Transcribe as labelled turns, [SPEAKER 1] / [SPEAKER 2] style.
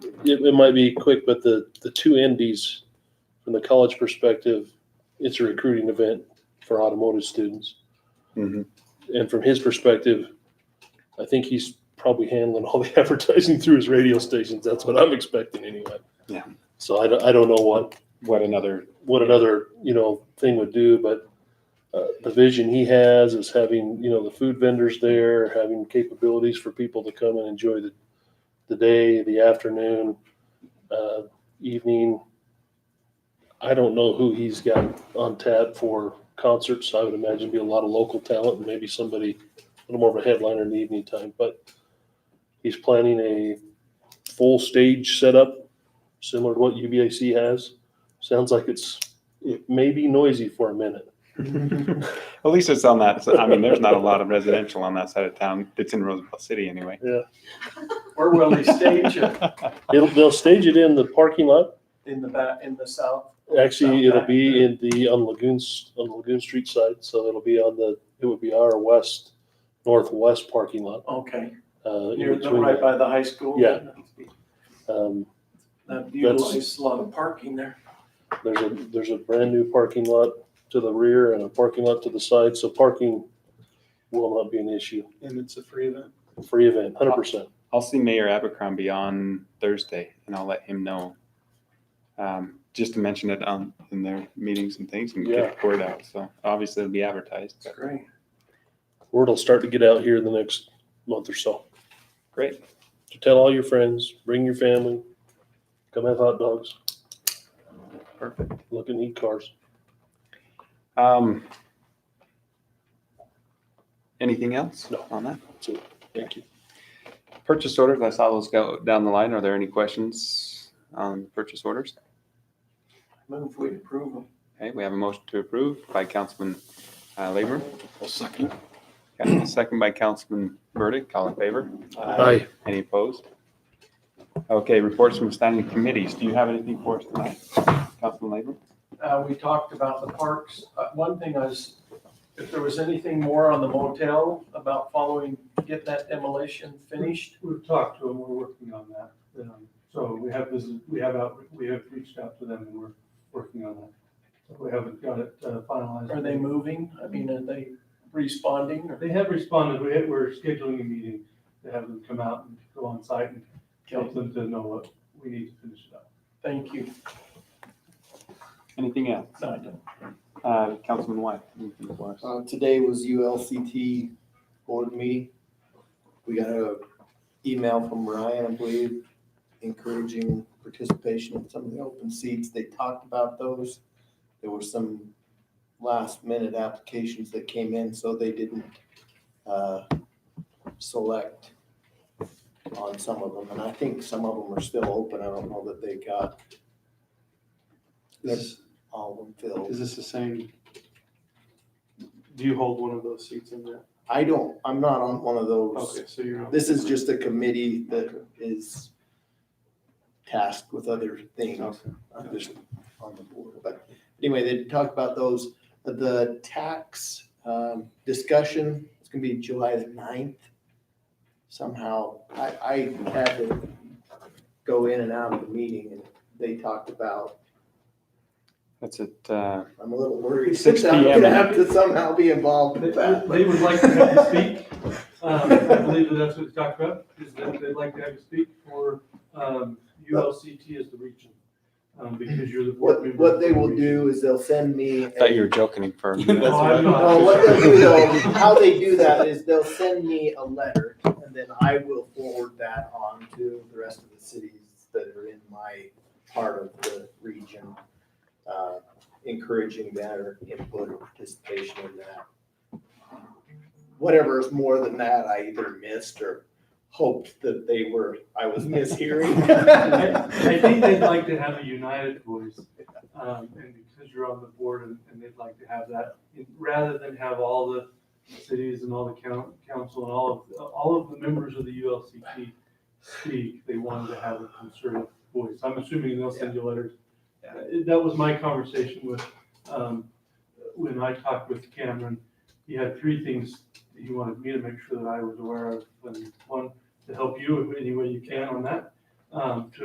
[SPEAKER 1] it, it might be quick, but the, the two indies, from the college perspective, it's a recruiting event for automotive students.
[SPEAKER 2] Mhm.
[SPEAKER 1] And from his perspective, I think he's probably handling all the advertising through his radio stations. That's what I'm expecting anyway.
[SPEAKER 2] Yeah.
[SPEAKER 1] So I don't, I don't know what,
[SPEAKER 2] What another,
[SPEAKER 1] what another, you know, thing would do, but uh, the vision he has is having, you know, the food vendors there, having capabilities for people to come and enjoy the, the day, the afternoon, uh, evening. I don't know who he's got on tap for concerts. I would imagine be a lot of local talent and maybe somebody a little more of a headliner in the evening time, but he's planning a full stage setup similar to what UBAC has. Sounds like it's, it may be noisy for a minute.
[SPEAKER 2] at least it's on that, I mean, there's not a lot of residential on that side of town. It's in Roosevelt City anyway.
[SPEAKER 3] Where will they stage it?
[SPEAKER 1] It'll, they'll stage it in the parking lot.
[SPEAKER 3] In the back, in the south?
[SPEAKER 1] Actually, it'll be in the, on Lagoons, on Lagoon Street side, so it'll be on the, it would be our west, northwest parking lot.
[SPEAKER 3] Okay,
[SPEAKER 1] uh, in
[SPEAKER 3] near, the
[SPEAKER 1] between
[SPEAKER 3] right by the high school?
[SPEAKER 1] Yeah. Um,
[SPEAKER 3] That
[SPEAKER 1] That's-
[SPEAKER 3] utilizes a lot of parking there.
[SPEAKER 1] There's a, there's a brand new parking lot to the rear and a parking lot to the side, so parking will not be an issue.
[SPEAKER 4] And it's a free event.
[SPEAKER 1] Free event, hundred percent.
[SPEAKER 2] I'll see Mayor Abercrombie on Thursday and I'll let him know. Um, just to mention it on, in their meetings and things and get the word out. So obviously it'll be advertised.
[SPEAKER 3] It's
[SPEAKER 2] but
[SPEAKER 3] great.
[SPEAKER 1] Word will start to get out here in the next month or so.
[SPEAKER 2] Great.
[SPEAKER 1] So tell all your friends, bring your family, come have hot dogs,
[SPEAKER 2] Perfect.
[SPEAKER 1] look and eat cars.
[SPEAKER 2] Um, anything else?
[SPEAKER 1] No.
[SPEAKER 2] On that?
[SPEAKER 1] So, thank you.
[SPEAKER 2] Purchase orders, I saw those go down the line. Are there any questions on purchase orders?
[SPEAKER 3] Move, we approve them.
[SPEAKER 2] Okay, we have a motion to approve by Councilman uh, Labor.
[SPEAKER 4] I'll second.
[SPEAKER 2] Okay, Second by Councilman Burdick. All in favor?
[SPEAKER 3] Uh,
[SPEAKER 1] Aye.
[SPEAKER 2] Any opposed? Okay, reports from standing committees. Do you have anything for us tonight, Councilman Labor?
[SPEAKER 3] Uh, we talked about the parks. Uh, one thing I was, if there was anything more on the motel about following, get that demolition finished.
[SPEAKER 5] We've talked to them, we're working on that. Um, So we have, this. we have out, we have reached out to them and we're working on that. We haven't got it uh, finalized.
[SPEAKER 3] Are they moving? I mean, are they responding or
[SPEAKER 5] They have responded, we, we're scheduling a meeting to have them come out and go on site and help them to know what we need to finish it up.
[SPEAKER 3] Thank you.
[SPEAKER 2] Anything else?
[SPEAKER 3] No, I don't.
[SPEAKER 2] Uh, Councilman White, anything for us?
[SPEAKER 6] Uh, today was ULCT board meeting. We got a email from Ryan, I believe, encouraging participation in some of the open seats. They talked about those. There were some last minute applications that came in, so they didn't, uh, select on some of them. And I think some of them are still open. I don't know that they got
[SPEAKER 4] Is
[SPEAKER 6] all of them filled.
[SPEAKER 4] is this the same? Do you hold one of those seats in there?
[SPEAKER 6] I don't, I'm not on one of those.
[SPEAKER 4] Okay, so you're.
[SPEAKER 6] This is just a committee that is tasked with other things,
[SPEAKER 2] Okay.
[SPEAKER 6] not just on the board. But anyway, they talked about those, the tax um, discussion, it's gonna be July the ninth. Somehow, I, I had to go in and out of the meeting and they talked about,
[SPEAKER 2] That's it. uh,
[SPEAKER 6] I'm a little worried.
[SPEAKER 2] 6
[SPEAKER 6] I'm
[SPEAKER 2] PM.
[SPEAKER 6] gonna have to somehow be involved
[SPEAKER 5] They,
[SPEAKER 6] with that.
[SPEAKER 5] they would like to have you speak. Um, I believe that that's what they talked about, is that they'd like to have you speak for, um, ULCT as the region. Um, because you're the board
[SPEAKER 6] What,
[SPEAKER 5] member.
[SPEAKER 6] what they will do is they'll send me. a-
[SPEAKER 2] Thought you were joking for a minute.
[SPEAKER 5] No, I'm not.
[SPEAKER 6] No, Oh, what they'll do though, how they do that is they'll send me a letter and then I will forward that on to the rest of the cities that are in my part of the region. uh, Encouraging their input or participation in that. Whatever is more than that, I either missed or hoped that they were, I was mishearing.
[SPEAKER 5] I I think they'd like to have a united voice, um, and because you're on the board and, and they'd like to have that, rather than have all the cities and all the coun- council and all of, all of the members of the ULCT speak, they wanted to have a concerted voice. I'm assuming they'll send you letters. Uh, That was my conversation with, um, when I talked with Cameron, he had three things that he wanted me to make sure that I was aware of, and one, to help you in any way you can on that, um, to